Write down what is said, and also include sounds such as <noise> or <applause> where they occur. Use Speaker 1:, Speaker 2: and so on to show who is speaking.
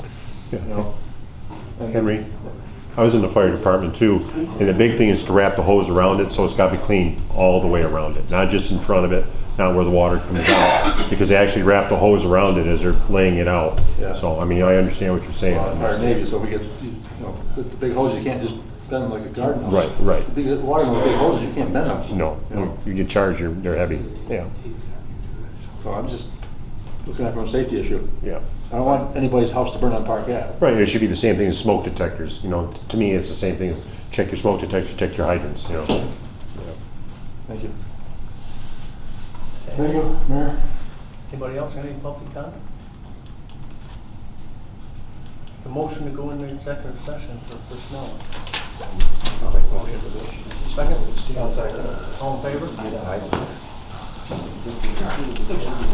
Speaker 1: Yeah.
Speaker 2: you know. And-
Speaker 1: Henry, I was in the fire department too, and the big thing is to wrap the hose around it, so it's gotta be clean all the way around it, not just in front of it, not where the water comes
Speaker 2: <coughs>
Speaker 1: out, because they actually wrap the hose around it as they're laying it out.
Speaker 2: Yeah.
Speaker 1: So, I mean, I understand what you're saying
Speaker 2: Well,
Speaker 1: on
Speaker 2: Fire
Speaker 1: this.
Speaker 2: Navy, so we get, you know, the the big hose, you can't just bend them like a garden hose.
Speaker 1: Right, right.
Speaker 2: The big- water, the big hoses, you can't bend them.
Speaker 1: No,
Speaker 2: You know,
Speaker 1: you get charged, you're, they're heavy, yeah,
Speaker 2: So I'm just looking at it from a safety issue.
Speaker 1: yeah.
Speaker 2: I don't want anybody's house to burn on Park Ave.
Speaker 1: Right, it should be the same thing as smoke detectors, you know, to me, it's the same thing as check your smoke detectors, check your hydrants, you know.
Speaker 2: Thank you. Thank you, Mayor.
Speaker 3: Anybody else, any public comment? The motion to go into executive session for personnel. Second? All in favor?